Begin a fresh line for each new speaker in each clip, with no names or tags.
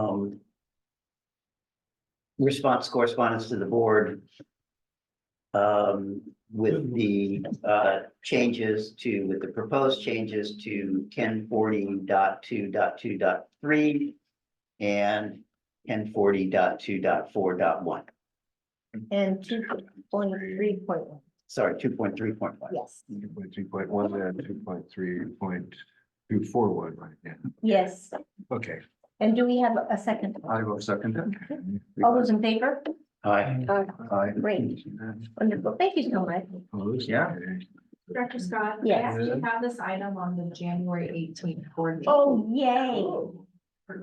um, response correspondence to the board. Um, with the uh changes to, with the proposed changes to ten forty dot two dot two dot three. And ten forty dot two dot four dot one,
And two point three point one,
sorry, two point three point one.
yes,
Two point two point one and two point three point two four one, right, yeah,
yes.
okay,
And do we have a second?
I will second
All
that.
those in favor?
Hi,
Aye.
Great. Wonderful. Thank you so much.
Opposed?
Yeah.
Director Scott?
Mm-hmm. Yes.
We have this item on the January eighteenth board. meeting.
Oh, yay.
Oh.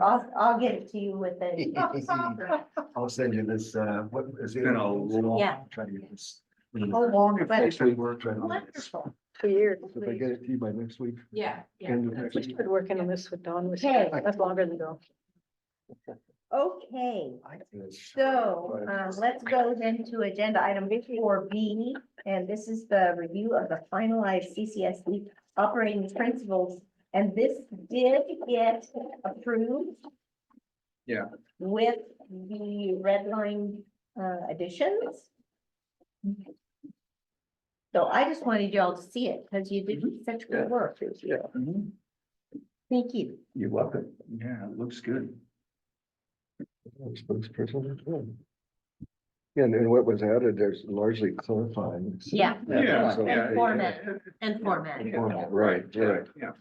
I'll, I'll get it to you with the,
I'll send you this, uh, what is it?
Been a long-
Yeah.
Try to get this.
Oh,
Long
but-
officially work, try to get this.
wonderful.
Two years.
If I get it to you by next week.
Yeah, yeah.
end of
that's
next
We
week.
started working on this with Dawn, which
Okay.
that's longer than ago.
Okay,
I think it's-
so, um, let's go then to agenda item four B. And this is the review of the finalized CCSD E operating principles. And this did get approved.
Yeah.
With the red line, uh, additions. So I just wanted y'all to see it because you did such good work.
Mhm.
Thank you.
you're welcome.
Yeah, it looks good.
Spokesperson. Yeah, And, and what was added, there's largely clarifying.
Yeah.
Yeah.
So-
And
yeah,
format,
yeah.
and format.
Format, Right, right,
Yeah.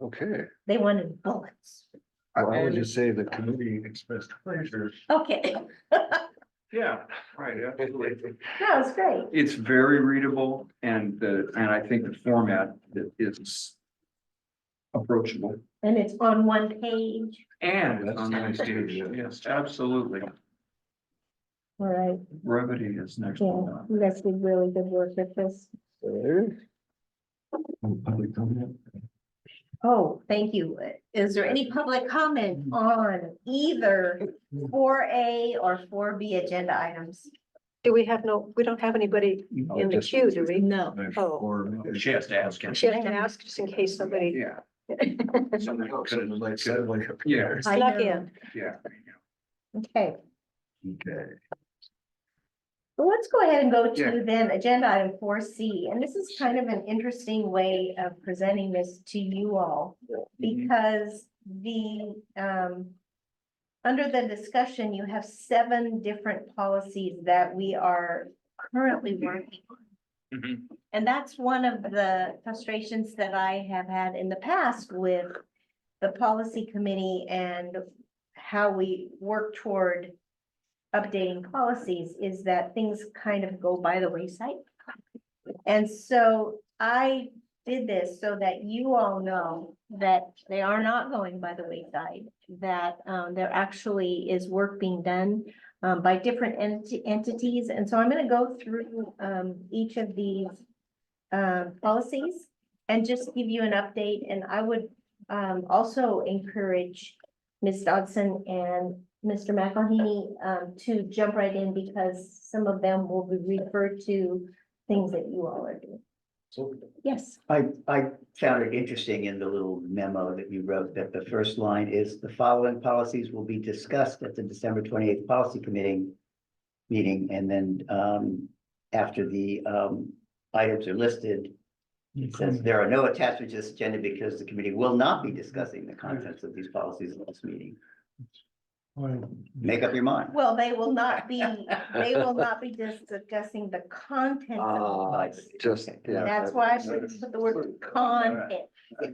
okay.
They wanted bullets.
Well, I would just say the committee expressed pleasure.
Okay,
Yeah, right, absolutely.
that was great.
It's very readable and the, and I think the format that is approachable
And it's on one page.
and
That's
on the
nice, too,
stage.
yeah.
Yes, absolutely.
All right,
Brevity is next. to
yeah,
none.
you guys did really good work with this.
Public comment?
Oh, thank you. Is there any public comment on either four A or four B agenda items?
Do we have no, we don't have anybody
No,
in the
Oh, just-
queue, do we?
No.
there's
Oh.
four-
She has to ask him.
She has to ask just in case somebody
Yeah.
Something else in the light suddenly appeared.
Yeah.
I
snuck
know.
in.
Yeah.
Okay,
Okay.
well, let's go ahead and go to
Yeah.
then agenda item four C, and this is kind of an interesting way of presenting this to you all. Because the, um. Under the discussion, you have seven different policies that we are currently working on.
Mhm.
And that's one of the frustrations that I have had in the past with the policy committee and how we work toward updating policies is that things kind of go by the wayside. And so I did this so that you all know that they are not going by the wayside, that um, there actually is work being done um, by different enti- entities. And so I'm going to go through um, each of these um, policies and just give you an update. And I would um, also encourage Ms. Dodson and Mr. McElhaney um, to jump right in because some of them will be referred to things that you all are doing. Yes.
I, I found it interesting in the little memo that you wrote that the first line is the following policies will be discussed at the December twenty-eighth policy committee meeting, and then, um, after the, um, items are listed, it says there are no attachments to this agenda because the committee will not be discussing the contents of these policies at this meeting. Make up your mind.
Well, they will not be, they will not be discussing the content of the
Ah,
policy.
just, yeah.
That's why I put put the word content.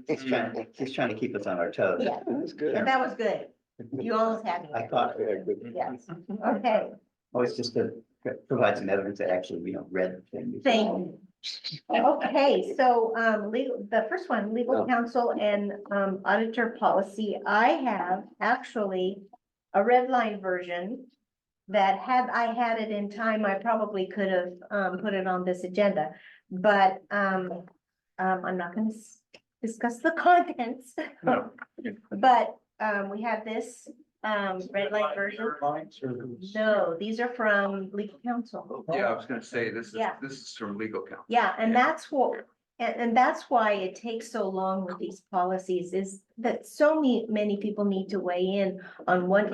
He's trying, he's trying to keep us on our toes.
Yeah,
That's
and
good.
that was good. You almost had me.
I thought-
Yes, okay,
Oh, it's just to provide some evidence that actually we don't read the thing. before.
thank you. Okay, so um legal, the first one, legal counsel and um auditor policy, I have actually a red line version that had I had it in time, I probably could have um put it on this agenda, but um um I'm not gonna s- discuss the contents.
No.
But um we have this um red line version. No, these are from legal counsel.
Yeah, I was gonna say, this is,
Yeah.
this is from legal counsel.
Yeah, and that's what, and, and that's why it takes so long with these policies is that so many, many people need to weigh in on what